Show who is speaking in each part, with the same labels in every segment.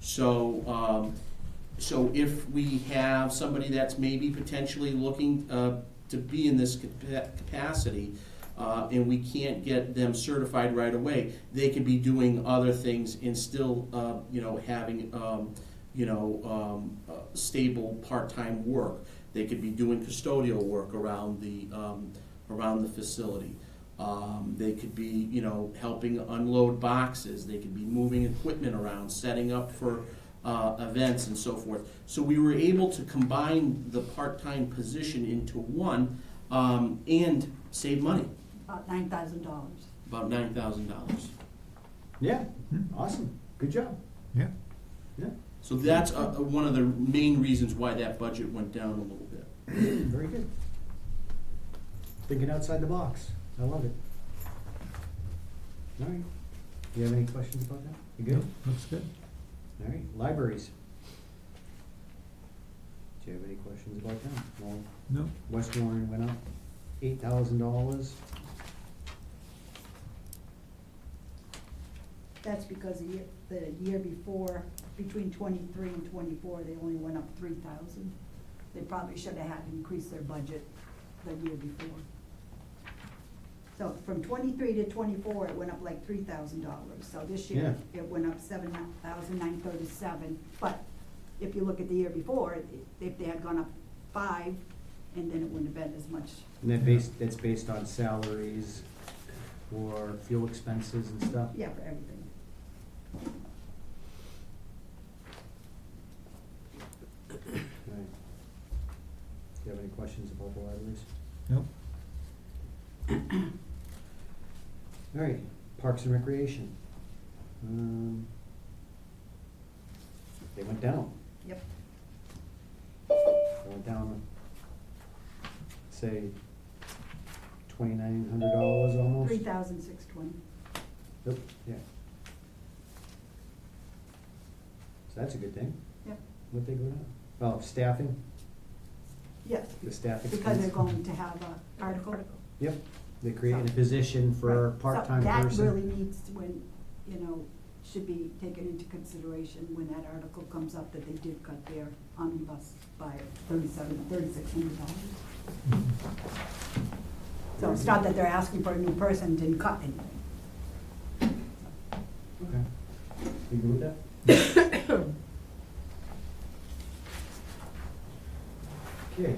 Speaker 1: So, um, so if we have somebody that's maybe potentially looking, uh, to be in this capa- capacity, uh, and we can't get them certified right away, they could be doing other things and still, uh, you know, having, um, you know, um, uh, stable part-time work. They could be doing custodial work around the, um, around the facility. Um, they could be, you know, helping unload boxes. They could be moving equipment around, setting up for uh, events and so forth. So we were able to combine the part-time position into one um, and save money,
Speaker 2: about nine thousand dollars.
Speaker 1: about nine thousand dollars.
Speaker 3: Yeah, Mm-hmm. awesome, good job,
Speaker 4: Yeah,
Speaker 3: yeah,
Speaker 1: So that's uh, one of the main reasons why that budget went down a little bit.
Speaker 3: very good. Thinking outside the box, I love it. All right, you have any questions about that? You
Speaker 4: yeah,
Speaker 3: good?
Speaker 4: looks good.
Speaker 3: All right, libraries. Do you have any questions about them? Well,
Speaker 4: No,
Speaker 3: West Warren went up eight thousand dollars.
Speaker 2: That's because the year, the year before, between twenty-three and twenty-four, they only went up three thousand. They probably should have had increased their budget the year before. So from twenty-three to twenty-four, it went up like three thousand dollars, so this year, it went up seven thousand nine thirty-seven. But if you look at the year before, it- if they had gone up five, and then it wouldn't have been as much.
Speaker 3: And that based, that's based on salaries or fuel expenses and stuff?
Speaker 2: Yeah, for everything.
Speaker 3: All right. Do you have any questions about the libraries?
Speaker 4: no,
Speaker 3: All right, Parks and Recreation. Um, They went down,
Speaker 2: Yep.
Speaker 3: they went down, say, twenty-nine hundred dollars almost?
Speaker 2: Three thousand six twenty.
Speaker 3: Yep, yeah. So that's a good thing,
Speaker 2: Yep.
Speaker 3: what they go down? Oh, staffing,
Speaker 2: Yes,
Speaker 3: the staff expense.
Speaker 2: because they're going to have a article.
Speaker 3: Yep, they're creating a position for a
Speaker 2: Right. So
Speaker 3: part-time person.
Speaker 2: That really needs to, when, you know, should be taken into consideration when that article comes up that they did cut their omnibus by thirty-seven, thirty-six hundred dollars.
Speaker 4: Mm-hmm.
Speaker 2: So it's not that they're asking for a new person, didn't cut anything.
Speaker 3: Okay. You good with that? Okay.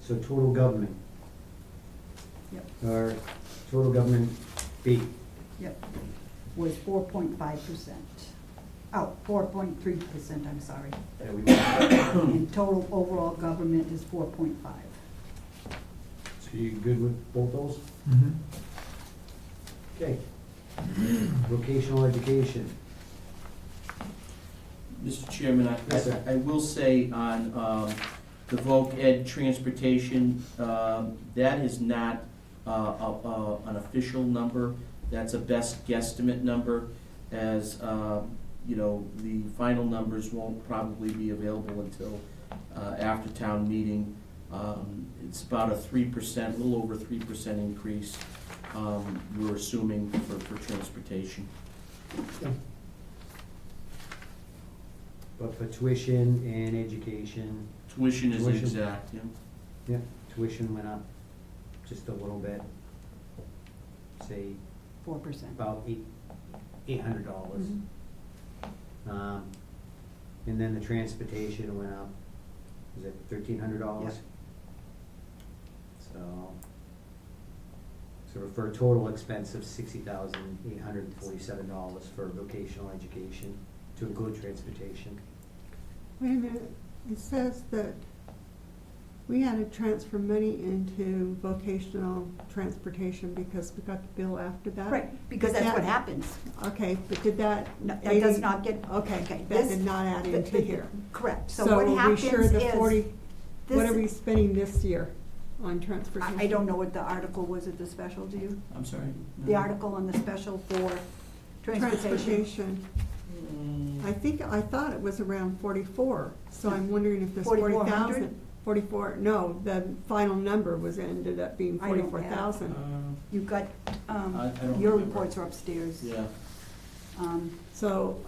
Speaker 3: So total government,
Speaker 2: Yep,
Speaker 3: or total government B,
Speaker 2: yep, was four point five percent. Oh, four point three percent, I'm sorry.
Speaker 3: that we want.
Speaker 2: And total overall government is four point five.
Speaker 3: So you good with both those?
Speaker 4: mm-hmm,
Speaker 3: Okay. Vocational education,
Speaker 1: Mr. Chairman, I-
Speaker 3: Yes, sir.
Speaker 1: I, I will say on, um, the voc ed transportation, um, that is not, uh, a, a, an official number. That's a best guesstimate number, as, um, you know, the final numbers won't probably be available until, uh, after town meeting. Um, it's about a three percent, a little over three percent increase, um, we're assuming for, for transportation.
Speaker 3: but for tuition and education,
Speaker 1: Tuition is
Speaker 3: Tuition.
Speaker 1: exact, yeah.
Speaker 3: yeah, tuition went up just a little bit. Say
Speaker 2: four percent.
Speaker 3: about eight, eight hundred dollars.
Speaker 2: Mhm.
Speaker 3: Um, and then the transportation went up, was it thirteen hundred dollars? So, so for a total expense of sixty thousand eight hundred and forty-seven dollars for vocational education, to include transportation.
Speaker 5: Wait a minute, it says that we had to transfer money into vocational transportation because we got the bill after that?
Speaker 2: Right, because that's what
Speaker 5: Yeah.
Speaker 2: happens.
Speaker 5: Okay, but did that?
Speaker 2: No, That does
Speaker 5: eighty-
Speaker 2: not get.
Speaker 5: Okay, that
Speaker 2: this-
Speaker 5: did not add into
Speaker 2: th-
Speaker 5: here.
Speaker 2: Correct, so what
Speaker 5: are we
Speaker 2: happens
Speaker 5: sure the
Speaker 2: is,
Speaker 5: forty, what are we
Speaker 2: this,
Speaker 5: spending this year on
Speaker 2: I
Speaker 5: transportation?
Speaker 2: I don't know what the article was at the special, do you?
Speaker 1: I'm sorry?
Speaker 2: The article on the special for transportation.
Speaker 5: Transportation, I think, I thought it was around forty-four, so I'm wondering if this forty
Speaker 2: 4400?
Speaker 5: thousand. Forty-four, no, the final number was, ended up being
Speaker 2: I don't Uh. have-
Speaker 5: forty-four thousand.
Speaker 2: You've got,
Speaker 1: I- I
Speaker 2: um,
Speaker 1: don't
Speaker 2: your
Speaker 1: remember.
Speaker 2: reports are upstairs.
Speaker 1: Yeah,
Speaker 2: Um,
Speaker 5: So